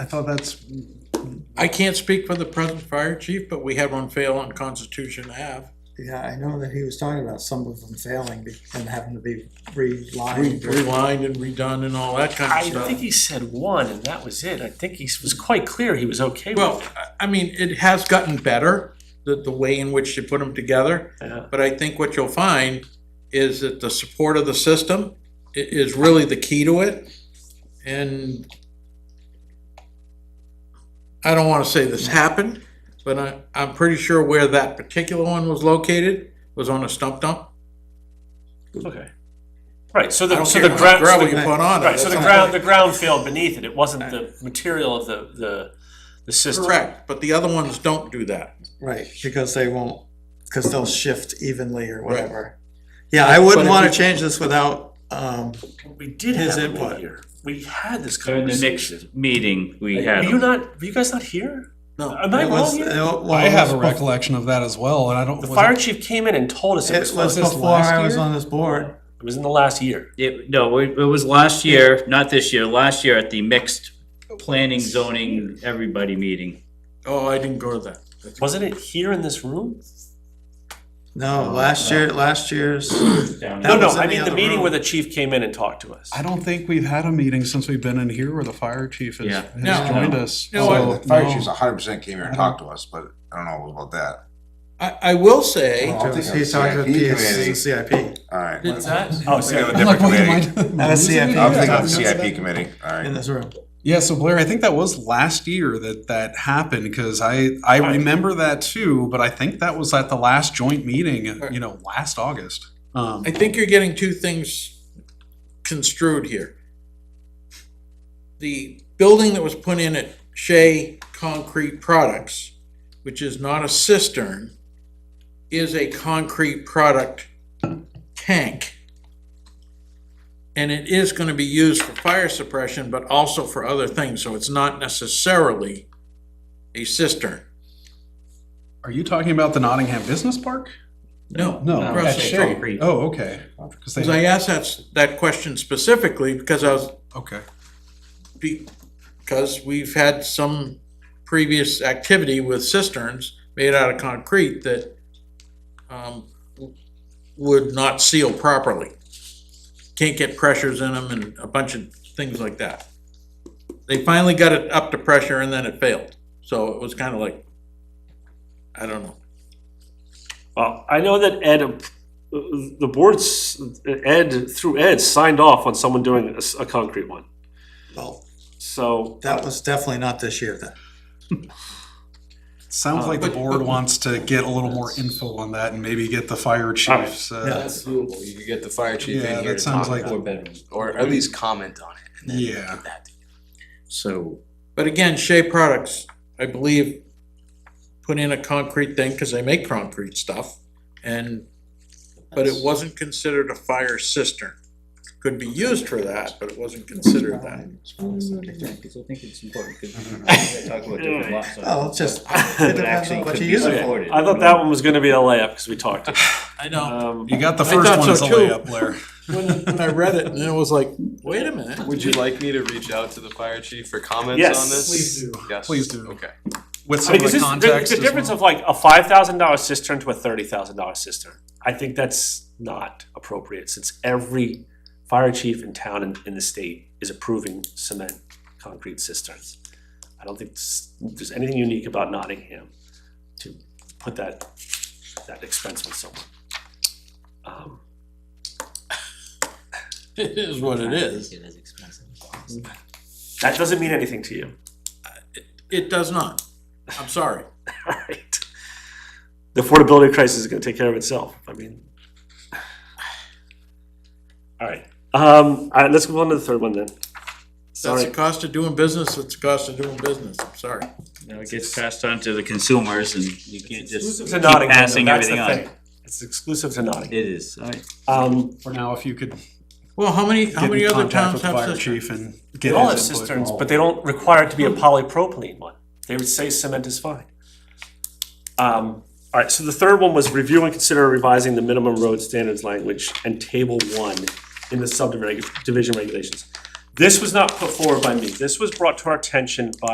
I thought that's, I can't speak for the present fire chief, but we had one fail on Constitution Ave. yeah, I know that he was talking about some of them failing be- and having to be relined. or- Relined and redone and all that kind of I stuff. think he said one, and that was it. I think he was quite clear he was okay with Well, I- I mean, it has gotten better, the, the way in which you put them together. Yeah. But I think what you'll find is that the support of the system i- is really the key to it. And I don't wanna say this happened, but I, I'm pretty sure where that particular one was located was on a stump dump. Okay. Right, so I the, don't so care the how much ground, so gravel you the, put on it. right, so the that's- ground, the ground failed beneath it, it wasn't the material of the, the, the system. Correct, but the other ones don't do that. Right, because they won't, because they'll shift evenly or whatever. Yeah, I wouldn't But if wanna you- change this without, um, We did His have it input. one year, we had this So in the conversation. next meeting, we Were had you them. not, were you guys not here? No, Am I it was- wrong it here? wa- well, I it have a was bef- recollection of that as well, and I don't. The was fire it- chief came in and told us it was It was flooded, this before last I was year? on this board. it was in the last year. It- no, it it was last year, not this year, last year at the mixed planning, zoning, everybody meeting. oh, I didn't go to that. Wasn't it here in this room? No, last year, last year's, down That No, no, was in I the mean the other meeting room. where the chief came in and talked to us. I don't think we've had a meeting since we've been in here where the fire chief has, Yeah. has No. joined us. No, so, Well, the fire Oh, no. chief's hundred percent came here and talked to us, but I don't know about that. I, I will say, Well, I think he's talking to CIP the committee. CIP. Alright, Did that? Oh, We have a sorry. I'm like, different wait, am I- committee. am I losing CIP. it? I'm thinking Yeah. of CIP committee, In alright. this room. Yeah, so Blair, I think that was last year that that happened because I I Right. remember that too, but I think that was at the last joint meeting, Right. you know, last August. Um, I think you're getting two things construed here. The building that was put in at Shea Concrete Products, which is not a cistern, is a concrete product tank. And it is gonna be used for fire suppression, but also for other things, so it's not necessarily a cistern. are you talking about the Nottingham Business Park? No, No, No, across at the that's street. concrete. Oh, okay. 'Cause they- Because I asked that, that question specifically because I was okay. because we've had some previous activity with cisterns made out of concrete that um, would not seal properly. Can't get pressures in them and a bunch of things like that. They finally got it up to pressure and then it failed. So it was kind of like, I don't know. Well, I know that Ed, uh, the boards, Ed, through Ed, signed off on someone doing a, s- a concrete one. Well, So, that was definitely not this year then. Sounds Uh, like the but- board but- wants to get a little more info on that and maybe get the fire Alright. chiefs. Uh, That's doable, you could get the fire chief Yeah, in here that to sounds talk like- about it, or at least comment on it, and then Yeah. get that to you. So But again, Shea Products, I believe, put in a concrete thing because they make concrete stuff. And, but it wasn't considered a fire cistern. Could be used for that, but it wasn't considered that. People think it's important because we talk about different lot sizes. Oh, it's just, it But depends on actually what could you be use it for. supported. I thought that one was gonna be a layup, because we talked. I know. Um, you got the I first thought one so as a too. layup, Blair. When when I read it, and it was like, wait a minute. Would you like me to reach out to the fire chief for comments Yes. on this? Please do. Yes. Please do. Okay. With I some mean, of 'cause the this- context. the as difference well. of like a five thousand dollar cistern to a thirty thousand dollar cistern, I think that's not appropriate, since every fire chief in town in, in the state is approving cement, concrete cisterns. I don't think s- there's anything unique about Nottingham to put that, that expense on someone. Um, It is what it is. It is expensive. That doesn't mean anything to you, It does not. I'm sorry. alright? The affordability crisis is gonna take care of itself, I mean. Alright, um, alright, let's move on to the third one then. That's Sorry, the cost of doing business. It's the cost of doing business. I'm sorry. Now it gets passed on to the consumers and you can't just exclusive to keep Nottingham, though, passing that's the everything on. thing. It's exclusive to Nottingham. It is. I- Um, For now, if you could Well, how many, how get many in other contact towns with the have fire cisterns? chief and get they all have his input. Hmm. cisterns, but they don't require it to be a polypropylene one. They would say cement is fine. Um, all right, so the third one was review and consider revising the minimum road standards language and table one in the subdivision regulations. This was not put forward by me. This was brought to our attention by